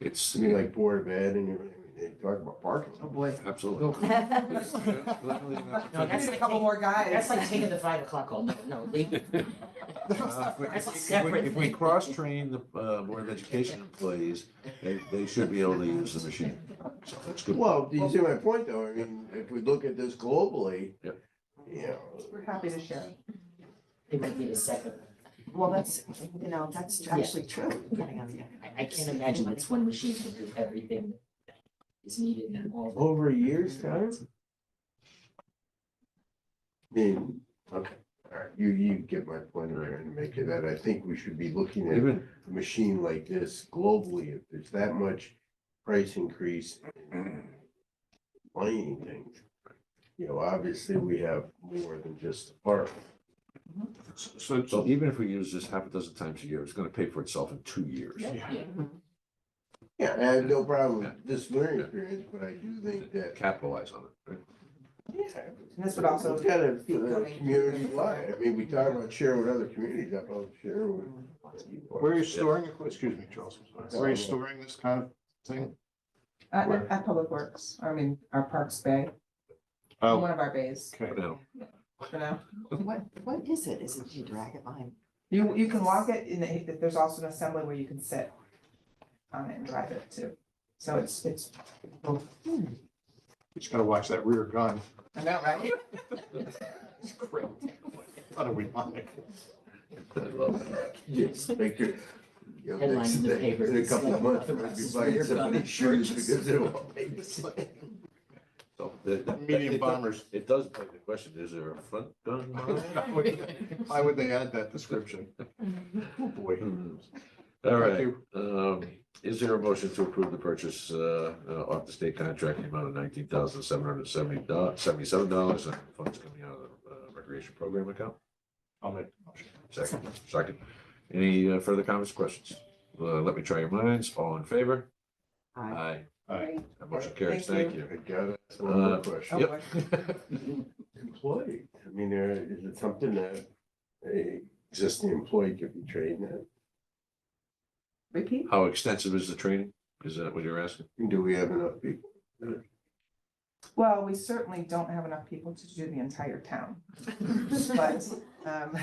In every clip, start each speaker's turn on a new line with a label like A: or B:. A: It's,
B: I mean, like Board of Ed and everything, they talk about parking.
C: Oh, boy.
A: absolutely. It's- yeah, literally not-
C: No, that's
D: That's
C: a couple more guys.
D: That's like taking the five o'clock call. No, no, leave.
C: That's
E: Uh, if we-
D: That's a
E: If we- if we
D: separate-
E: cross-train the uh, Board of Education employees, they, they should be able to use the machine. So that's good.
B: Well, do you see my point though? I mean, if we look at this globally.
E: Yep.
B: You know,
C: We're happy to share.
D: They might need a second.
C: Well, that's, you know, that's actually true.
D: I, I can't imagine that's one machine can do everything that is needed and all.
B: over a year's time? I mean, okay, all right, you, you get my point there and make it that I think we should be looking at
E: Even,
B: a machine like this globally, if there's that much price increase. in Buying things, you know, obviously we have more than just the park.
E: so, so even if we use this half a dozen times a year, it's gonna pay for itself in two years.
D: Yeah.
B: Yeah, I have no problem with this learning experience, but I do think that
E: Capitalize on it, right?
C: And this would also-
B: It's Kind of community wide, I mean, we talk about sharing with other communities, I probably share with.
F: Where are you storing, it? excuse me, Charles, where are you storing this kind of thing?
C: At, at Public Works, I mean, our Parks Bay, one
F: Oh,
C: of our bays,
F: okay.
E: For now.
C: you know?
G: What, what is it? Is it, do you drag it behind?
C: You, you can walk it and it- there's also an assembly where you can sit on it and drive it too. So it's, it's,
F: Just gotta watch that rear gun.
C: I know, right?
F: It's great. Thought it would be-
E: I love that.
B: Yes, make your. you know,
D: Headlines in the
B: next day,
D: paper.
B: In a couple of months, we'll be buying somebody's shoes because they won't make the same.
E: So that- that-
F: Medium
E: it does-
F: bombers.
E: It does beg the question, is there a front gun?
F: Why would- Why would they add that description? Oh, boy.
E: Hmm. All
F: Thank
E: right,
F: you.
E: um, is there a motion to approve the purchase, uh, uh, off the state contract, in the amount of nineteen thousand seven hundred seventy dollars, seventy-seven dollars, and funds coming out of the uh, recreation program account?
F: I'll make the motion.
E: Second, second. Any uh, further comments, questions? Uh, let me try your minds. All in favor?
G: Aye.
F: Aye.
E: That motion carries.
C: Thank
E: Thank you.
B: I gotta ask one more
E: Uh,
B: question.
C: Oh,
E: Yep.
B: Employee, I mean, there, is it something that a existing employee could be trained in?
C: Repeat?
E: How extensive is the training? Is that what you're asking?
B: Do we have enough people?
C: Well, we certainly don't have enough people to do the entire town. But, um,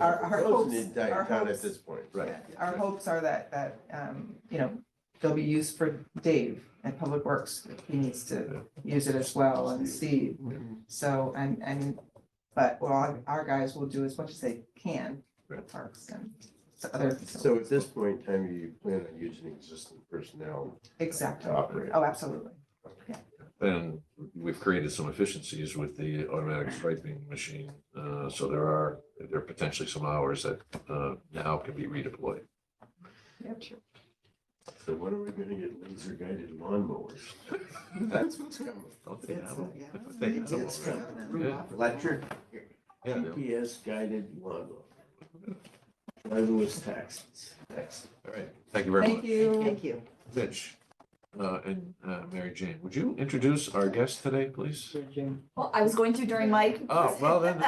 C: Our- our
B: Those in the
C: hopes-
B: entire
C: our
B: town
C: hopes-
B: At this point.
E: Right.
C: our hopes are that, that, um, you know, they'll be used for Dave at Public Works. He needs to use it as well and Steve.
B: Mm-hmm.
C: So, and, and, but what our- our guys will do as much as they can for the parks and to other.
B: So at this point in time, you plan on using existing personnel
C: Exactly.
B: to operate?
C: Oh, absolutely.
E: And we've created some efficiencies with the automatic striping machine. Uh, so there are, there are potentially some hours that, uh, now can be redeployed.
B: So when are we gonna get laser guided lawnmowers? That's what's coming.
E: Don't they have them?
G: uh, Yeah.
E: Don't they have them
B: It's
E: already?
B: coming.
E: Yeah.
B: Electric
E: Yeah, they-
B: GPS guided lawnmower. Driverless taxis, taxis.
E: all right. Thank you very much.
C: Thank you.
G: Thank you.
E: Mitch, uh, and, uh, Mary Jane, would you introduce our guest today, please?
H: Well, I was going to during my.
E: Oh, well then,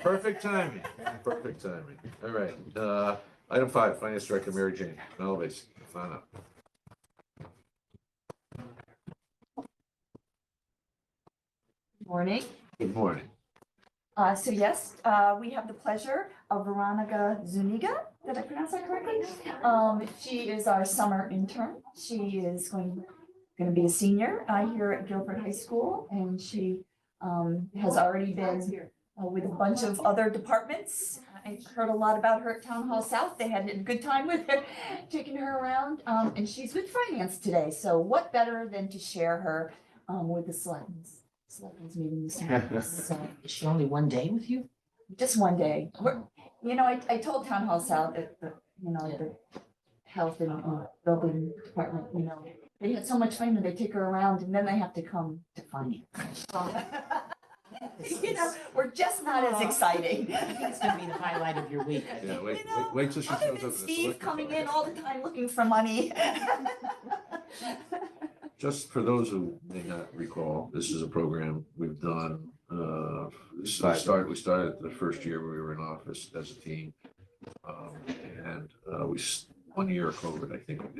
E: perfect timing, perfect timing. All right, uh, item five, Finance Director Mary Jane Melvys, come on up.
H: Morning.
E: Good morning.
H: Uh, so yes, uh, we have the pleasure of Veronica Zuniga. Did I pronounce that correctly? Um, she is our summer intern. She is going, going to be a senior, uh, here at Guilford High School. And she, um, has already been uh, with a bunch of other departments. I heard a lot about her at Town Hall South. They had a good time with her, taking her around. Um, and she's with finance today. So what better than to share her, um, with the selectmen's, selectmen's meeting this morning. So
D: Is she only one day with you?
H: just one day. We're, you know, I, I told Town Hall South that, the you know, the health and uh, building department, you know, they had so much fun that they take her around and then they have to come to find you. You know, we're just not as exciting.
D: I think it's gonna be the highlight of your week. I
E: Yeah,
D: think.
E: wait,
H: You know,
E: wait, wait till she shows up.
H: Other
E: at the
H: than Steve
E: select-
H: coming in all the time looking for money.
E: Just for those who may not recall, this is a program we've done, uh, this we started, we started the first year we were in office as a team. Um, and, uh, we, s- one year of COVID, I think, we